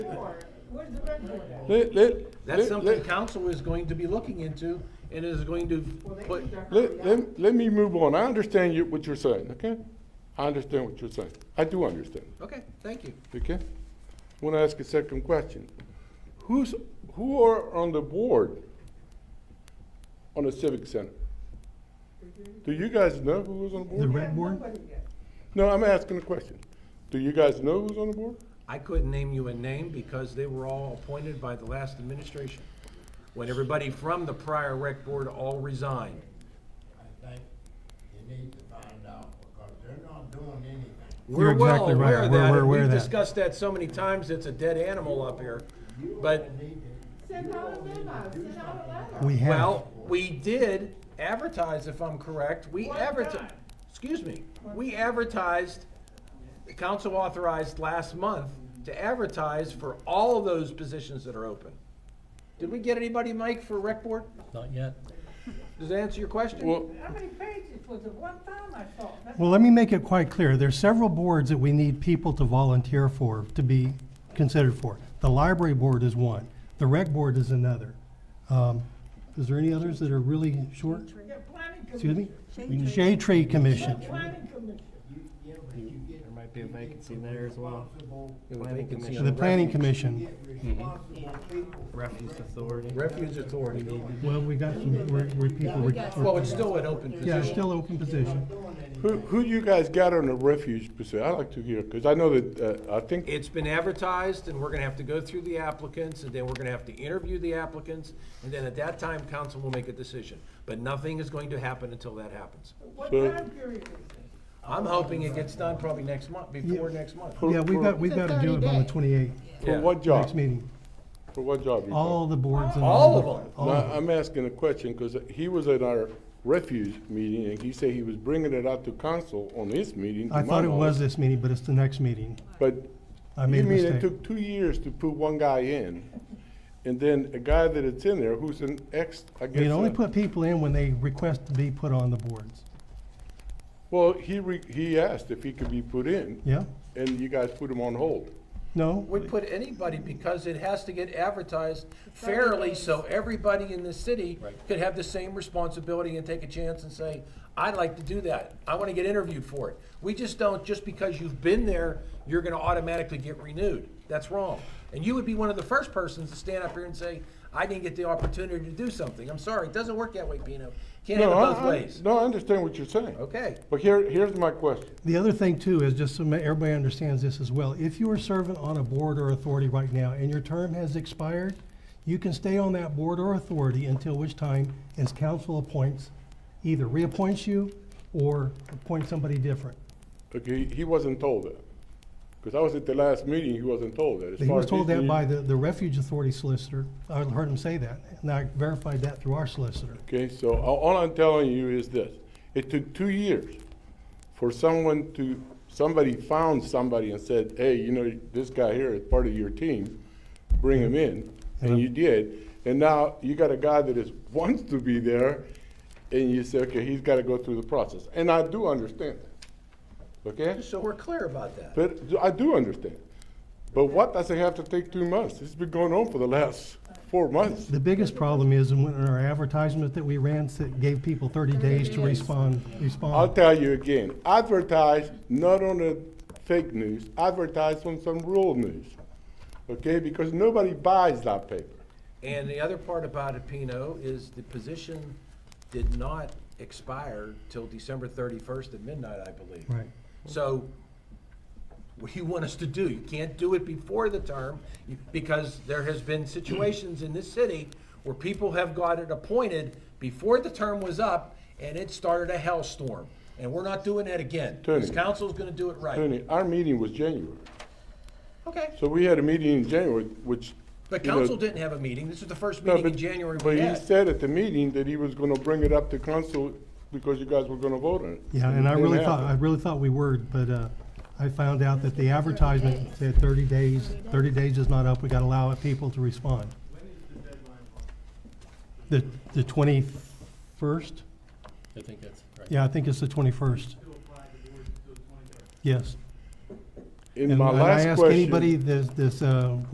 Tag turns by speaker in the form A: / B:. A: Where's the red board at?
B: Let, let,
C: That's
B: let,
C: something
B: let,
C: council is going to be looking into and is going to
A: Well, they
C: put,
A: need to hurry
B: let,
A: up.
B: let, let me move on. I understand you, what you're saying, okay? I understand what you're saying. I do understand,
C: okay, thank you.
B: okay? I want to ask a second question. Who's, who are on the board on the Civic Center? Do you guys know who was on the board?
D: The
A: We
D: red
A: have
D: board?
A: nobody yet.
B: No, I'm asking a question. Do you guys know who's on the board?
C: I couldn't name you a name because they were all appointed by the last administration. When everybody from the prior rec board all resigned.
E: I think you need to find out, because they're not doing anything.
C: We're
D: You're
C: well
D: exactly right.
C: aware of
D: We're-
C: that,
D: we're
C: and
D: aware
C: we've
D: of that.
C: discussed that so many times, it's a dead animal up here. But,
A: Send out a memo, send out a letter.
D: We have,
C: well, we did advertise, if I'm correct, we
A: One
C: advertised,
A: time.
C: excuse me, we advertised, the council authorized last month to advertise for all of those positions that are open. Did we get anybody, Mike, for rec board?
F: Not yet.
C: Does that answer your question?
B: Well,
A: How many pages was it? One time I saw. it. That's
D: well, let me make it quite clear. There's several boards that we need people to volunteer for, to be considered for. The library board is one. The rec board is another. Um, Is there any others that are really short?
A: Yeah, planning
D: Excuse me?
A: commission.
D: Shade Tree Commission.
A: Planning commission.
E: There
F: might be a vacancy there as well.
C: Planning Commission.
D: The Planning Commission.
F: Refuse authority.
C: Refuge Authority.
D: Well, we got some, we're, we're people, we're,
C: Well, it's still an open
D: yeah, it's
C: position.
D: still open position.
B: who, who you guys got on the refuge position? I'd like to hear, because I know that, uh, I think
C: It's been advertised, and we're gonna have to go through the applicants, and then we're gonna have to interview the applicants, and then at that time, council will make a decision. But nothing is going to happen until that happens.
A: What
B: So-
A: time period is it?
C: I'm hoping it gets done probably next month, before
D: Yeah.
C: next month.
D: Yeah, we've got, we've got to do it by the twenty-eighth,
B: For what job?
D: next meeting.
B: For what job? you
D: All the boards. and
C: All of them.
B: got?
D: Oh.
B: Now, I'm asking a question, because he was at our refuge meeting, and he said he was bringing it out to council on his meeting. to
D: I
B: my
D: thought it was
B: knowledge.
D: this meeting, but it's the next meeting.
B: But
D: I
B: you
D: made a
B: mean it
D: mistake.
B: took two years to put one guy in, and then a guy that it's in there who's an ex, I guess.
D: We can only
B: uh,
D: put people in when they request to be put on the boards.
B: Well, he, re- he asked if he could be put in,
D: Yeah?
B: and you guys put him on hold.
D: No?
C: We put anybody, because it has to get advertised fairly, so everybody in the city could have the same responsibility and take a chance and say, I'd like to do that, I wanna get interviewed for it. We just don't, just because you've been there, you're gonna automatically get renewed, that's wrong. And you would be one of the first persons to stand up here and say, I didn't get the opportunity to do something, I'm sorry, it doesn't work that way, Pino, can't have
B: No,
C: it
B: I-
C: both
B: I-
C: ways.
B: No, I understand what you're saying.
C: Okay,
B: But here, here's my question.
D: The other thing too is just so ma- everybody understands this as well. If you are serving on a board or authority right now and your term has expired, you can stay on that board or authority until which time as council appoints, either reappoints you or appoints somebody different.
B: Okay, he wasn't told that. Because I was at the last meeting, he wasn't told that. As
D: He
B: far
D: was
B: as
D: told that
B: he-
D: by the, the refuge authority solicitor. I heard him say that and I verified that through our solicitor.
B: Okay, so a- all I'm telling you is this. It took two years for someone to, somebody found somebody and said, hey, you know, this guy here is part of your team, bring him in. And you did. And now you got a guy that is, wants to be there, and you say, okay, he's got to go through the process. And I do understand that, okay?
C: so we're clear about that.
B: But I do understand. But what does it have to take two months? It's been going on for the last four months.
D: The biggest problem is in our advertisement that we ran that gave people thirty days to respond,
B: I'll
D: respond.
B: tell you again, advertise not on the fake news, advertise on some real news. Okay, because nobody buys that paper.
C: And the other part about it, Pino, is the position did not expire till December thirty-first at midnight, I believe.
D: Right.
C: So what do you want us to do? You can't do it before the term, you- because there has been situations in this city where people have got it appointed before the term was up, and it started a hellstorm. And we're not doing that again. This
B: Tony.
C: council's gonna do it right.
B: Tony, our meeting was January.
C: Okay,
B: So we had a meeting in January, which.
C: the
B: you know-
C: council didn't have a meeting. This is the first
B: No,
C: meeting in
B: but-
C: January
B: But
C: we
B: he
C: had.
B: said at the meeting that he was gonna bring it up to council because you guys were gonna vote on it.
D: Yeah, and I
B: It didn't
D: really thought, I
B: happen.
D: really thought we were, but, uh, I found out that the advertisement said thirty days, thirty days is not up, we gotta allow people to respond. The, the twenty-first?
F: I think that's right.
D: Yeah, I think it's the twenty-first. Yes.
B: In
D: And
B: my
D: and
B: last
D: I ask
B: question-
D: anybody this, this, uh,